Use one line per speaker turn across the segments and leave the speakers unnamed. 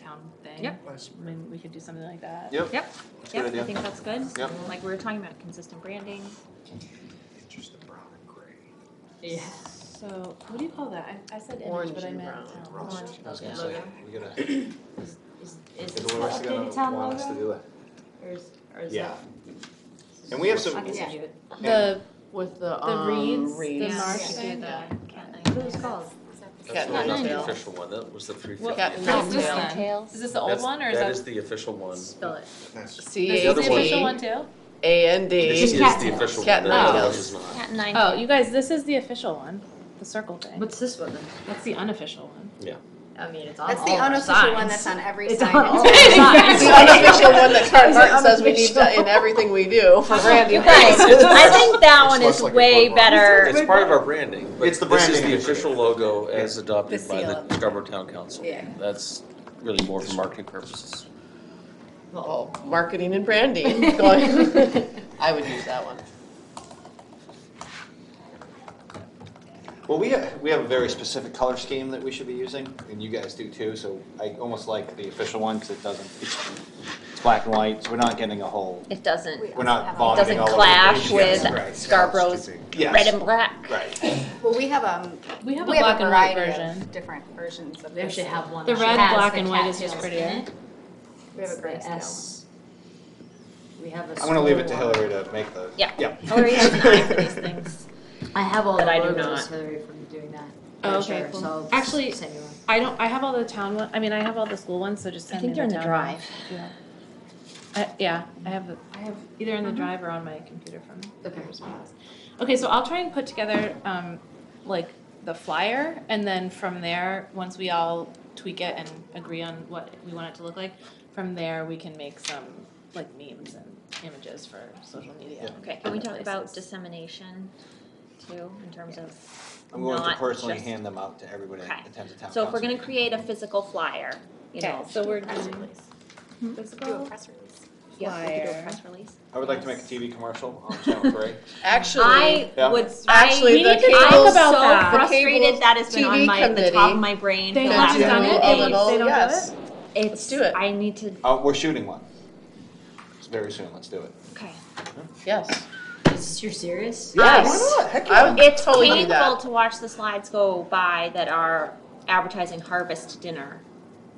town thing.
Yep.
I mean, we could do something like that.
Yep.
Yep,
That's a
Yep,
good
I
idea.
think that's good.
Yep.
Like we were talking about consistent branding.
It's just the brown and gray.
Yeah.
So, what do you call that? I, I said
Orange
image, but I
and
meant
brown.
town.
Rust.
Orange.
I was
yeah.
gonna say,
Logo.
we gotta, is
Is, is, is this
Everyone
the
wants to
updated
get
town
on, want us to
logo?
do that.
Or is, or is
Yeah.
that?
And we have some-
I can
Yeah.
see it.
The,
With the,
um,
the reeds, the
reeds.
marsh
Yeah.
thing.
Yeah.
What
What was it called?
That's
Cat
not
and
the
tail.
official one, that was the three fifty.
Well,
Cat
is
and
this
tail.
then? Is this the old
That's-
one or
That
is
is
that?
the official one.
Spell it.
that's
C
This
A
is
other
the official one
T.
too?
A N
This
D.
is
cat
the
tails.
official
Cat
one, that
tails.
one is not.
Cat nine.
Oh, you guys, this is the official one, the circle thing.
What's this one then?
That's the unofficial one.
I mean, it's on all
That's
the
the unofficial one that's
signs.
on every
It's
sign.
on all
Exactly.
the
The
signs.
unofficial one that Carl
It's
Martin says we need
unofficial.
to in everything we do for branding.
guys,
purposes.
I think that
It's
one
less
is
like a
way
playground.
better.
It's part of our branding, but
It's the
this is
branding
the
initiative.
official logo as
The
adopted by
seal.
the Scarborough Town Council.
Yeah.
That's really more for marketing purposes.
Oh, marketing and branding. Going- I would use that one.
Well, we have, we have a very specific color scheme that we should be using, and you guys do too, so I almost like the official one, because it doesn't, it's, it's black and white, so we're not getting a whole,
It doesn't,
we're not
it
vomiting
doesn't
all over the
clash
page. Yes,
with
right.
Scarborough's
Yes.
red and black.
Right,
Well, we have, um,
We have a
we have
black
a
and white
variety
version.
of different versions of
We
this.
actually have one.
The
that
red,
has
black,
the
and white is
cattails
just
in
prettier.
it.
We have a
It's
gray
the
scale.
S. We have a.
I'm gonna leave it to
small
Hillary to make the.
Yeah.
Yeah.
Hillary has an
Nice for these things.
one. I have all
But
the
I do
logos,
not.
Hillary, from doing that.
Oh,
Sure,
okay, cool.
so I'll
Actually,
just send you one.
I don't, I have all the town one, I mean, I have all the school ones, so just
I
send me
think
the town.
they're in the drive.
Yeah. I, yeah, I have, the- I have either in the drive or on my computer from the
Uh-huh. Okay.
papers. files. Okay, so I'll try and put together, um, like, the flyer, and then from there, once we all tweak it and agree on what we want it to look like, from there, we can make some, like, memes and images for social media.
Okay, can we talk about
Places.
dissemination too, in terms of
I'm going to
not
personally
just-
hand them out to everybody
Okay.
that attends the town council.
So if we're gonna create a physical flyer, you
Okay,
know.
so we're
press
doing
release.
Let's do a press release.
Yeah, we could do a
flyer.
press release.
I would like to make a TV commercial on Channel Three.
Actually,
I
Yeah.
would,
Actually,
I,
the
to talk
I'm
cable,
about that.
so
The
frustrated
cable
that has been on
TV
my, the top
committee
of my brain for
They
the
have
last
to do
couple
it.
a
They-
days.
little,
they don't have
yes.
It's,
do it.
I need to,
Uh, we're shooting one. It's very soon, let's do it.
okay.
Yes.
Is, you're serious?
Yes.
not? Heck
I would
It's
totally do
painful
that.
to watch the slides go by that are advertising harvest dinner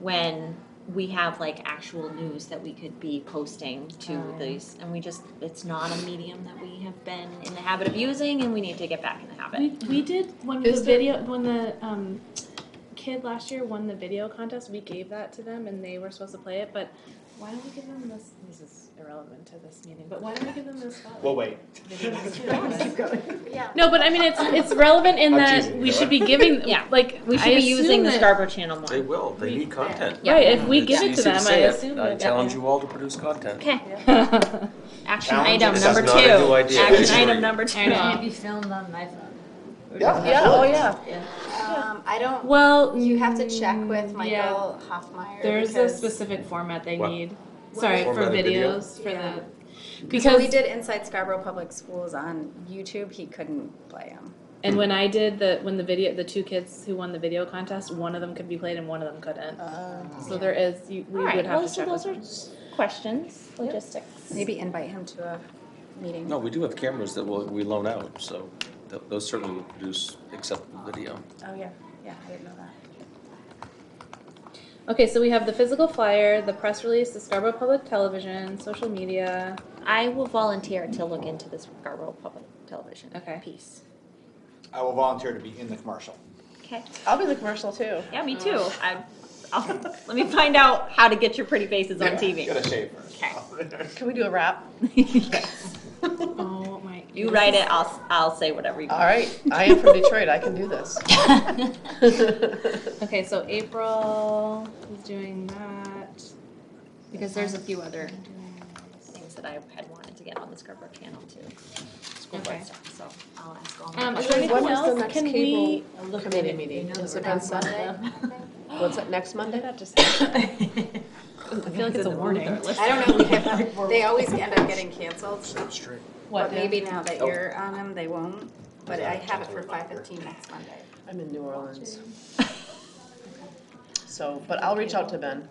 when we have like actual news that we could be posting
Oh,
to
yeah.
these, and we just, it's not a medium that we have been in the habit of using, and we need to get back in the
We,
habit.
we did when
Is
the
there-
video when the um, kid last year won the video contest. We gave that to them, and they were supposed to play it. But why don't we give them this? This is irrelevant to this meeting. But why don't we give them this? spotlight?
Well, wait.
Yeah.
no, but I mean it's it's relevant in
I'm
that
teasing
we
you,
should be giving.
Yeah.
like
We
I
should be
assume
using the
that-
Scarborough Channel more.
They will, they need content.
Yeah.
Right, if we
It's
give it
easy
to them, I
say it.
assume.
I
that-
challenge you all to produce content.
Okay,
Yeah.
action
Challenge
item
This is
number two.
not a new idea. It's
Action item
great.
number two.
I know.
be filmed on my phone.
Yeah.
Yeah, oh yeah.
Um, I don't,
well,
you have to check with
mm, yeah.
Michael Hoffmeyer
There's a
because-
specific format they
What?
need. Sorry for
Format of video?
videos for
Yeah.
the
So
because
we did Inside Scarborough Public Schools on YouTube, he couldn't play them.
Hmm.
And when I did the when the video the two kids who won the video contest, one of them could be played and one of them couldn't. so there is you we
All right,
would have
well,
to
so
check
those
with
are
them.
questions, logistics.
Maybe invite him to a meeting.
No, we do have cameras that will, we loan out, so th- those certainly will produce acceptable video.
Oh, yeah, yeah, I didn't know that.
Okay, so we have the physical flyer, the press release, the Scarborough Public Television, social media.
I will volunteer to look into this Scarborough Public Television
Okay.
piece.
I will volunteer to be in the commercial.
Okay.
I'll be the commercial too.
Yeah, me too. I, I'll, let me find out how to get your pretty faces on TV.
Gotta shave first.
Can we do a wrap?
Oh my
You write it. I'll I'll say whatever you.
All right. I am from Detroit. I can do this.
Okay, so April is doing that.
Because there's a few other things that I had wanted to get on the Scarborough Channel too. School
Okay.
board stuff. So I'll ask all. My
Um, is there anything else? Can we
committee meeting? Is it on Sunday? What's that, next Monday?
that just happened? I feel like it's a warning.
I don't know, we have, they always end up getting canceled,
straight.
but
Dan?
maybe now that you're on them, they won't. But I have it for five fifteen next Monday.
I'm in New Orleans. So, but I'll reach out to Ben.